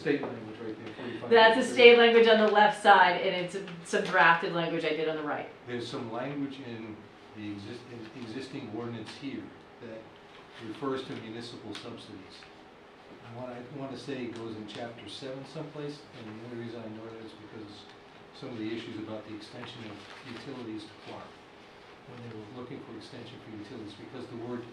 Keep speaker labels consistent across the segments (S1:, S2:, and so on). S1: state language right there, forty-five.
S2: That's the state language on the left side, and it's some drafted language I did on the right.
S1: There's some language in the exist, in existing ordinance here that refers to municipal subsidies. And what I wanna say it goes in chapter seven someplace, and the only reason I know that is because some of the issues about the extension of utilities to Clark. When they were looking for extension for utilities, because the word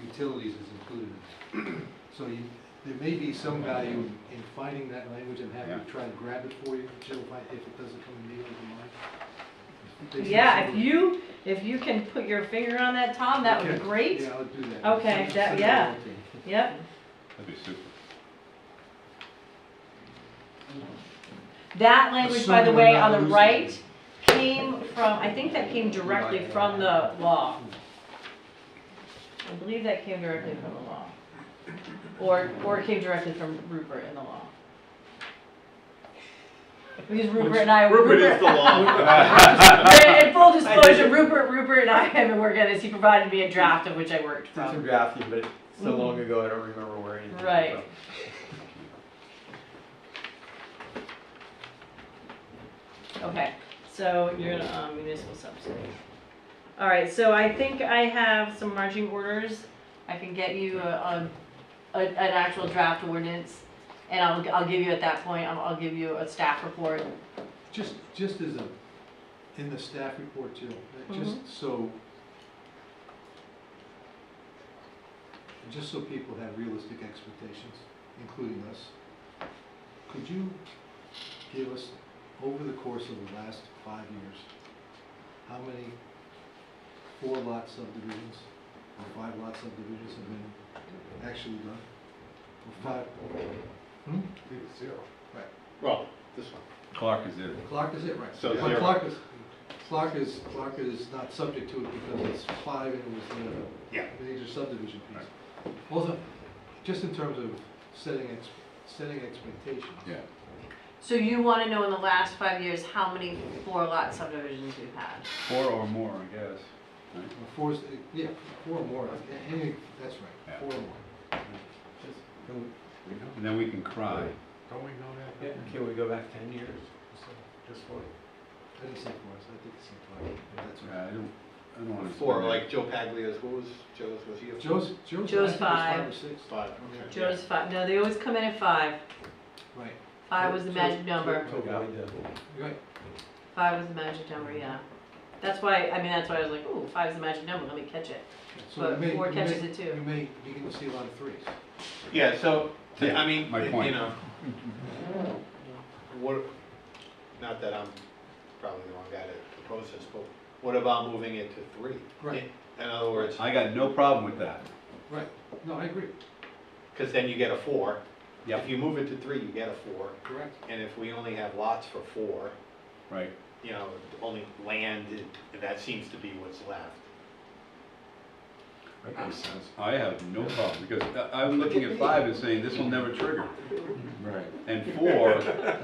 S1: utilities is included in that. So you, there may be some value in finding that language and having to try to grab it for you, Jill, if I- if it doesn't come immediately to mind. Based on
S2: Yeah, if
S1: some of-
S2: you, if you can put your finger on that, Tom, that would be
S1: Okay.
S2: great.
S1: Yeah, I'll do that.
S2: Okay,
S1: Send-
S2: that-
S1: send it
S2: yeah.
S1: over to me.
S2: Yep,
S3: That'd be super.
S2: that language, by the way,
S1: Assuming we're
S2: on
S1: not
S2: the
S1: losing
S2: right,
S1: anything.
S2: came from, I think that came directly from the law. I believe that came directly from the law. Or, or it came directly from Rupert in the law. Because Rupert and I.
S4: Rupert is the law.
S2: And and full
S4: did
S2: disclosure,
S4: it.
S2: Rupert, Rupert and I have been working on this, he provided me a draft of which I worked
S4: Did some
S2: from.
S4: drafting, but it's so long ago, I don't remember where anything. came
S2: Right.
S4: from.
S2: Okay, so you're in um, municipal subsidies. All right, so I think I have some marching orders. I can get you a, a, a- an actual draft ordinance, and I'll, I'll give you at that point, I'll, I'll give you a staff report.
S1: Just, just as a, in the staff report, Jill, that
S2: Mm-hmm.
S1: just so, just so people have realistic expectations, including us, could you give us, over the course of the last five years, how many four lot subdivisions or five lot subdivisions have been actually done? Or five,
S4: Well, this one.
S3: Clark is it.
S1: Clark is it, right?
S4: So
S1: But
S4: zero.
S1: Clark is, Clark is, Clark is not subject to it because it's five and it was
S4: Yeah.
S1: the major subdivision piece. Also, just in terms of setting, ex- setting expectations.
S3: Yeah.
S2: So you wanna know in the last five years, how many four lot subdivisions we've had?
S3: Four or more, I guess.
S1: Or Four, is- yeah, four or more, a- any, that's right,
S3: Yeah.
S1: four or more.
S3: And then we can cry.
S5: Don't we know that?
S4: Yeah, can we go back ten years?
S5: Just what?
S1: I didn't say four, so I think it's five, that's
S3: Yeah,
S1: right.
S3: I don't, I don't wanna.
S4: Four,
S3: spend it.
S4: like Joe Paglia's, what was Joe's, was he a?
S1: Joe's, Joe's. I
S2: Joe's
S1: think it was
S2: five.
S1: or six.
S4: Five, okay.
S2: Joe's five, no, they always come in at five.
S1: Right,
S2: Five was the magic number.
S5: To avoid the-
S1: right.
S2: Five was the magic number, yeah. That's why, I mean, that's why I was like, ooh, five's the magic number, let me catch it.
S1: So you
S2: But
S1: may-
S2: four
S1: you may-
S2: catches it too.
S1: You may begin to see a lot of threes.
S4: Yeah, so, th- I mean,
S3: My
S4: you
S3: point.
S4: know. What, not that I'm probably the wrong guy to propose this, but what about moving it to three?
S1: Right.
S4: In other words,
S3: I got no problem with that.
S1: Right, no, I agree,
S4: because then you get a four.
S3: Yep.
S4: If you move it to three, you get a four,
S1: correct.
S4: and if we only have lots for four,
S3: Right.
S4: you know, only land, and that seems to be what's left.
S3: I have no problem, because I- I'm looking at five and saying, this will never trigger.
S5: Right.
S3: And four,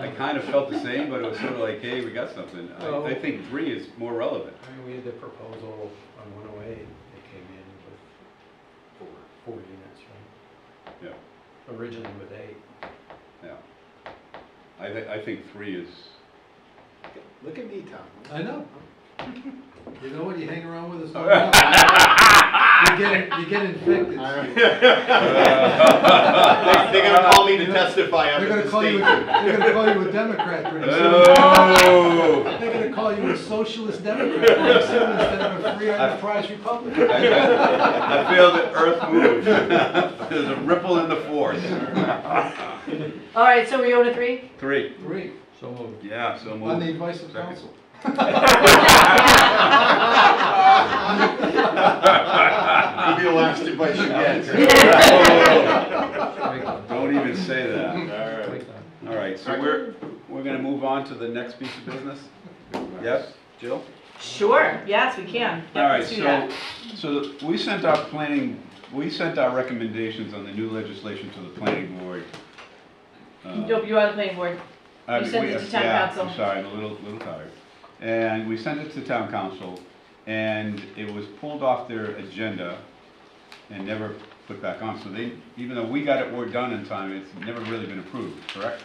S3: I kind of felt the same, but it was sort of like, hey, we got something. I, I think three is more relevant.
S5: I mean, we had the proposal on one oh eight that came in with. Four. Four units, right?
S3: Yeah.
S5: Originally with eight.
S3: Yeah. I thi- I think three is,
S4: Look at me, Tom.
S1: I know. You know what? You hang around with us long enough, you get you get infected.
S4: They- They're gonna call me to testify up
S1: They're gonna
S4: at the
S1: call you. A,
S4: state.
S1: they're gonna call you a Democrat pretty
S3: Uh.
S1: soon.
S3: oh!
S1: They're gonna call you a socialist Democrat pretty soon instead of a free enterprise Republican.
S3: I, I, I feel the earth move. There's a ripple in the force.
S2: All right, so we go to three?
S3: Three.
S1: Three
S5: So moved.
S3: Yeah, so
S1: on the
S3: moved.
S1: advice of
S3: Second.
S1: counsel.
S4: I'll be the last advice you get.
S2: Yeah.
S3: Don't even say that.
S4: Alright.
S5: Like that.
S3: All right, so we're, we're gonna move on to the next piece of business? Yes, Jill?
S2: Sure, yes, we can. Yep,
S3: All right,
S2: let's do that.
S3: so, so we sent our planning, we sent our recommendations on the new legislation to the planning board. uh,
S2: Nope, you are the planning board.
S3: I
S2: You
S3: mean,
S2: sent
S3: Uh, we-
S2: it to town
S3: yeah,
S2: council.
S3: I'm sorry, I'm a little, little tired. And we sent it to town council, and it was pulled off their agenda and never put back on. So they, even though we got it, we done in time, it's never really been approved, correct?